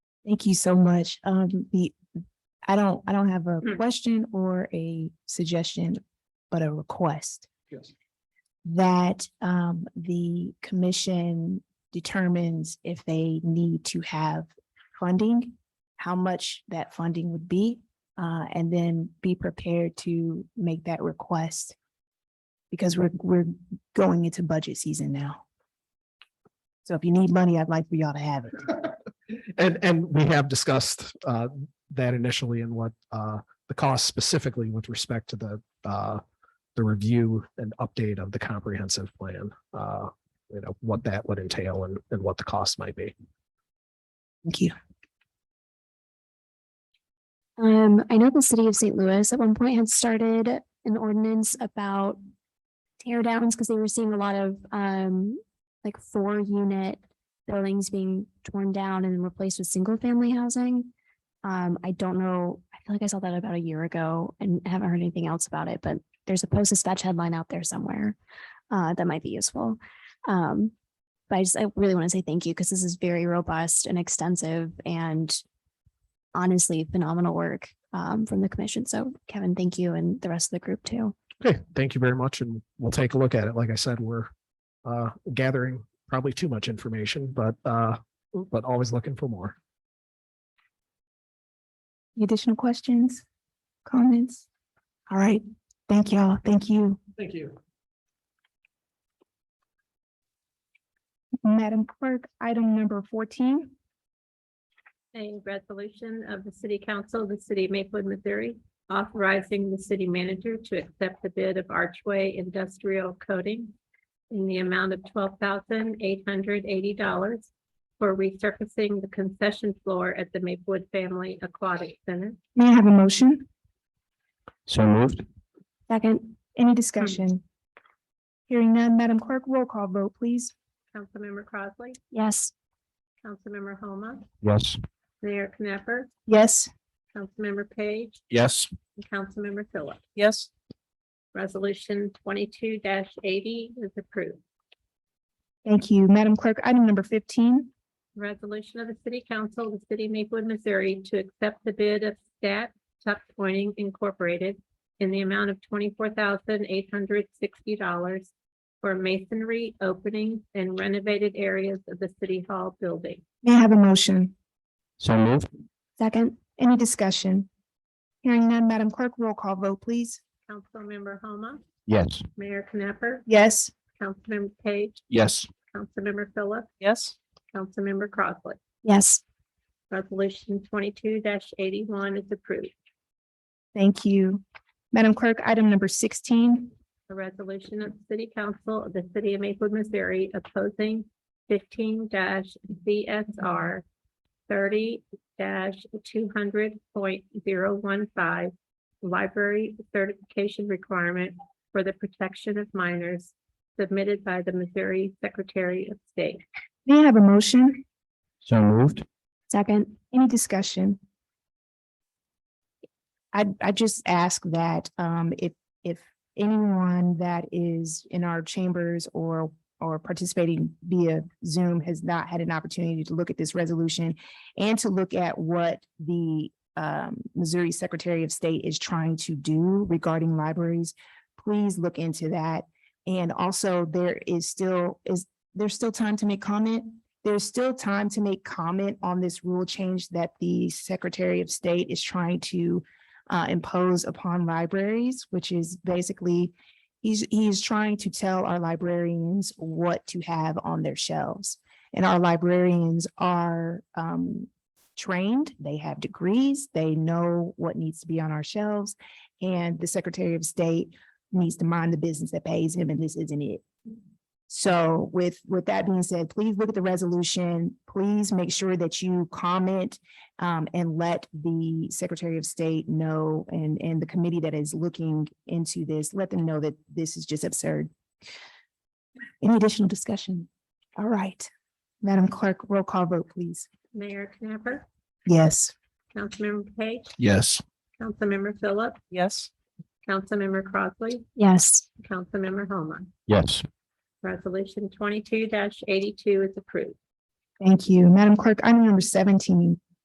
Thank you so much. Um, the, I don't, I don't have a Hmm. question or a suggestion, but a request Yes. that, um, the commission determines if they need to have funding, how much that funding would be, uh, and then be prepared to make that request because we're, we're going into budget season now. So if you need money, I'd like for y'all to have it. And, and we have discussed uh, that initially and what uh, the cost specifically with respect to the, uh, the review and update of the comprehensive plan. uh, You know, what that would entail and, and what the cost might be. Thank you. Um, I know the city of St. Louis at one point had started an ordinance about tear downs because they were seeing a lot of um like four unit buildings being torn down and replaced with single family housing. Um, I don't know. I feel like I saw that about a year ago and haven't heard anything else about it, but there's a post dispatch headline out there somewhere uh that might be useful. Um, but I just I really want to say thank you because this is very robust and extensive and honestly phenomenal work um, from the commission. So Kevin, thank you and the rest of the group too. Okay, thank you very much, and we'll take a look at it. Like I said, we're uh, gathering probably too much information, but, uh, but always looking for more. Any additional questions, comments? All right, thank y'all, thank you. Thank you. Madam Clerk, item number fourteen. A resolution of the City Council of the City of Maplewood, Missouri, authorizing the city manager to accept the bid of Archway Industrial Coating in the amount of twelve thousand eight hundred eighty dollars for resurfacing the concession floor at the Maplewood Family Aquatic Center. May I have a motion? So moved. Second, Any discussion? Hearing none, Madam Clerk, roll call vote, please. Councilmember Crossley, yes, Councilmember Homa, Yes. Mayor Knapper, Yes. Councilmember Page, Yes. and Councilmember Phillips. Yes. Resolution twenty-two eighty is approved. Thank you. Madam Clerk, item number fifteen. Resolution of the City Council of the City of Maplewood, Missouri to accept the bid of Stat Tuck Pointing Incorporated in the amount of twenty-four thousand eight hundred sixty dollars for masonry openings and renovated areas of the City Hall building. May I have a motion? So moved. second, Any discussion? Hearing none, Madam Clerk, roll call vote, please. Councilmember Homa, Yes. Mayor Knapper, Yes. Councilmember Page, Yes. Councilmember Phillips, Yes. Councilmember Crossley. yes, Resolution twenty-two eighty-one is approved. Thank you. Madam Clerk, item number sixteen. A resolution of the City Council of the City of Maplewood, Missouri opposing fifteen CSR thirty two hundred point zero one five library certification requirement for the protection of minors submitted by the Missouri Secretary of State. May I have a motion? So moved. second, Any discussion? I, I just ask that, um, if, if anyone that is in our chambers or, or participating via Zoom has not had an opportunity to look at this resolution and to look at what the, um, Missouri Secretary of State is trying to do regarding libraries, please look into that. And also, there is still, is, there's still time to make comment there's still time to make comment on this rule change that the Secretary of State is trying to uh, impose upon libraries, which is basically, he's, he's trying to tell our librarians what to have on their shelves. And our librarians are um, trained, they have degrees, they know what needs to be on our shelves. And the Secretary of State needs to mind the business that pays him, and this isn't it. So with, with that being said, please look at the resolution. Please make sure that you comment um, and let the Secretary of State know and, and the committee that is looking into this, let them know that this is just absurd. Any additional discussion? All right. Madam Clerk, roll call vote, please. Mayor Knapper, Yes. Councilmember Page, Yes. Councilmember Phillips, Yes, Councilmember Crossley, yes, Councilmember Homa. Yes. Resolution twenty-two eighty-two is approved. Thank you. Madam Clerk, item number seventeen.